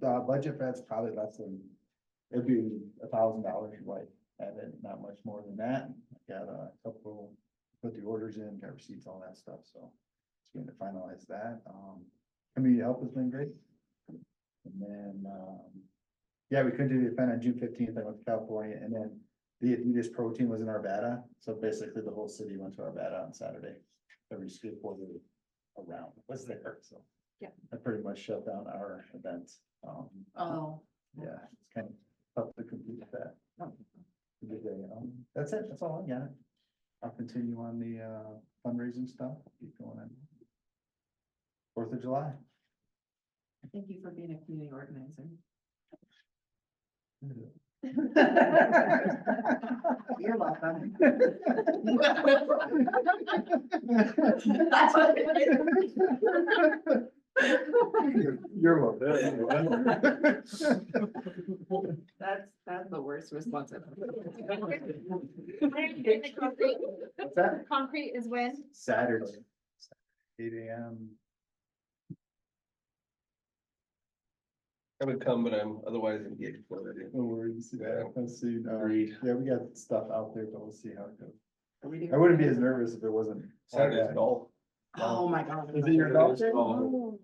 the budget for that's probably less than, it'd be a thousand dollars, right? And then not much more than that. I Got a couple, put the orders in, got receipts, all that stuff, so. Just going to finalize that. Um, community help has been great. And then, um, yeah, we couldn't do the event on June fifteenth. I went to California and then the Adidas Pro Team was in Arvada. So basically the whole city went to Arvada on Saturday. Every school board around was there, so. Yeah. I pretty much shut down our event. Um, Oh. yeah, it's kind of tough to compete with that. Good day, um, That's it, that's all I got. I'll continue on the uh, fundraising stuff, keep going on. Fourth of July. Thank you for being a community organizer. You're welcome. That's what it is. You're- You're welcome. That's, that's the worst response. I've concrete, What's that? concrete is when? Saturday. Eight AM. I would come, but I'm otherwise engaged. already. No worries, yeah, Yeah. I'll see, uh, Agreed. yeah, we got stuff out there, but we'll see how it goes. ever- I wouldn't be as nervous if it wasn't. all Saturday's bad. golf. Oh, my God. Is it your golf day? Oh.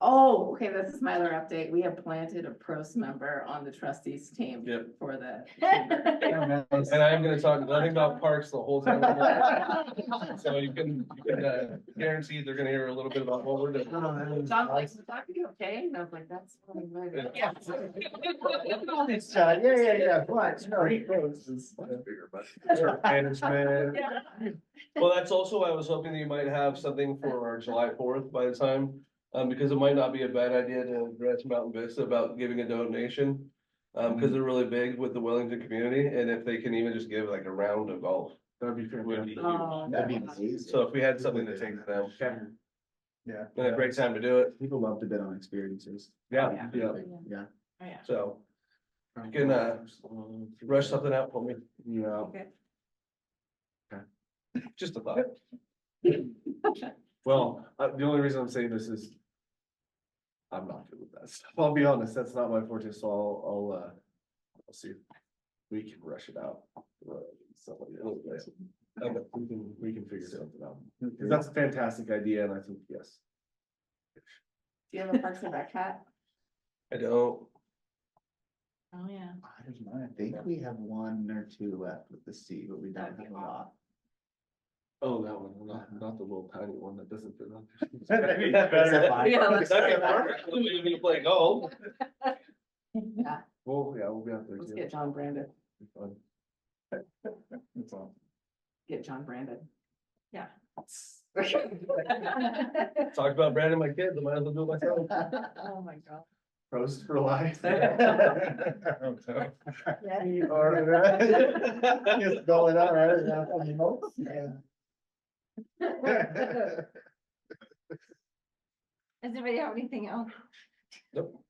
Oh, okay, this is my other update. We have planted a pros member on the trustees team. Yep. For the. chamber. Yeah, man. And I am gonna talk nothing about parks the whole time. Oh, So you can, you can uh, guarantee they're gonna hear a little bit about what we're doing. John's John's like, "Is that you okay? And I was like, that's. what I'm like." Yeah. It's John, yeah, yeah, yeah, what, no, he goes. Management. Well, that's also, why I was hoping that you might have something for our July fourth by the time, um, because it might not be a bad idea to address Mountain Vista about giving a donation. Um, because they're really big with the Wellington community, and if they can even just give like a round of golf. That'd be huge. Oh, That'd be God. amazing. So if we had something to take to them, Yeah. then a great time to do it. People love to bet on experiences. Yeah. Yeah, Yeah. Oh, yeah. so you can, uh, rush something out for me, Yeah. Okay. just a thought. Well, uh, the only reason I'm saying this is. I'm not good with that stuff. I'll be honest, that's not my forte, so I'll, I'll, uh, I'll see if we can rush it out. uh, Somebody else, does. Okay. we can, we can figure something out. Cause that's a fantastic idea and I think, yes. Do you have a Parks and Rec hat? I don't, Oh, yeah. Here's mine. think we have one or two left with the C, but we don't have a lot. oh, that one, not, not the little tiny one that doesn't fit on. That'd be better. Yeah, let's try That'd be that. perfect, we're gonna play golf. Yeah, Well, yeah, we'll be out there. Let's too. get John Brandon, Be fun. That's all. get John Brandon. Yeah. Talked about branding my kids, I might as well do it myself. Oh, my God. Pros for life. All right. uh, Just going out, right? Yeah, I mean, most, yeah. Does anybody have anything else? Nope.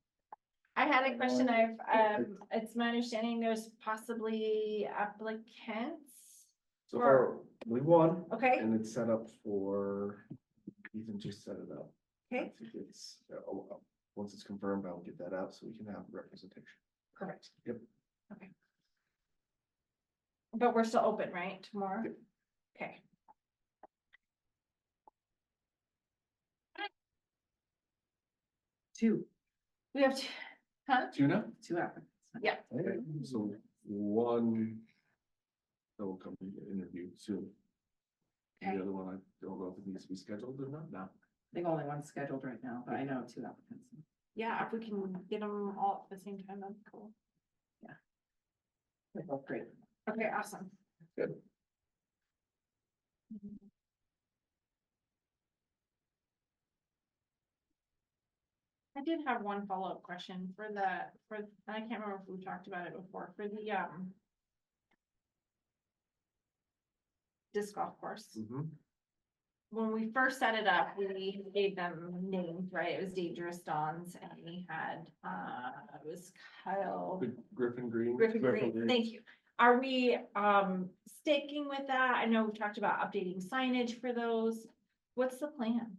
I had a question. I've, um, it's my understanding there's possibly applicants. So far, we won. Okay, And it's set up for, Ethan just set it up. I okay, think it's, uh, oh, oh, once it's confirmed, I'll get that out so we can have representation. perfect. Yep. Okay. But we're still open, right, tomorrow? Okay. Two, We have, t- huh? Tuna? two applicants. Yeah. Okay, so one. That will come and get interviewed soon. The Okay. other one, I don't know if it needs to be scheduled or not now. I think only one's scheduled right now, but I know two applicants. Yeah, if we can get them all at the same time, that'd be cool. They're both Great. Okay, awesome. Good. I did have one follow-up question for the, for, and I can't remember if we talked about it before, for the, um, disc golf course. Mm. Mm-hmm. When we first set it up, we gave them names, right? It was Dangerous Dawns and we had, uh, it was Kyle. The Griffin Green. Griffin Green, Griffin Green. thank you. Are we um sticking with that? I know we've talked about updating signage for those. What's the plan?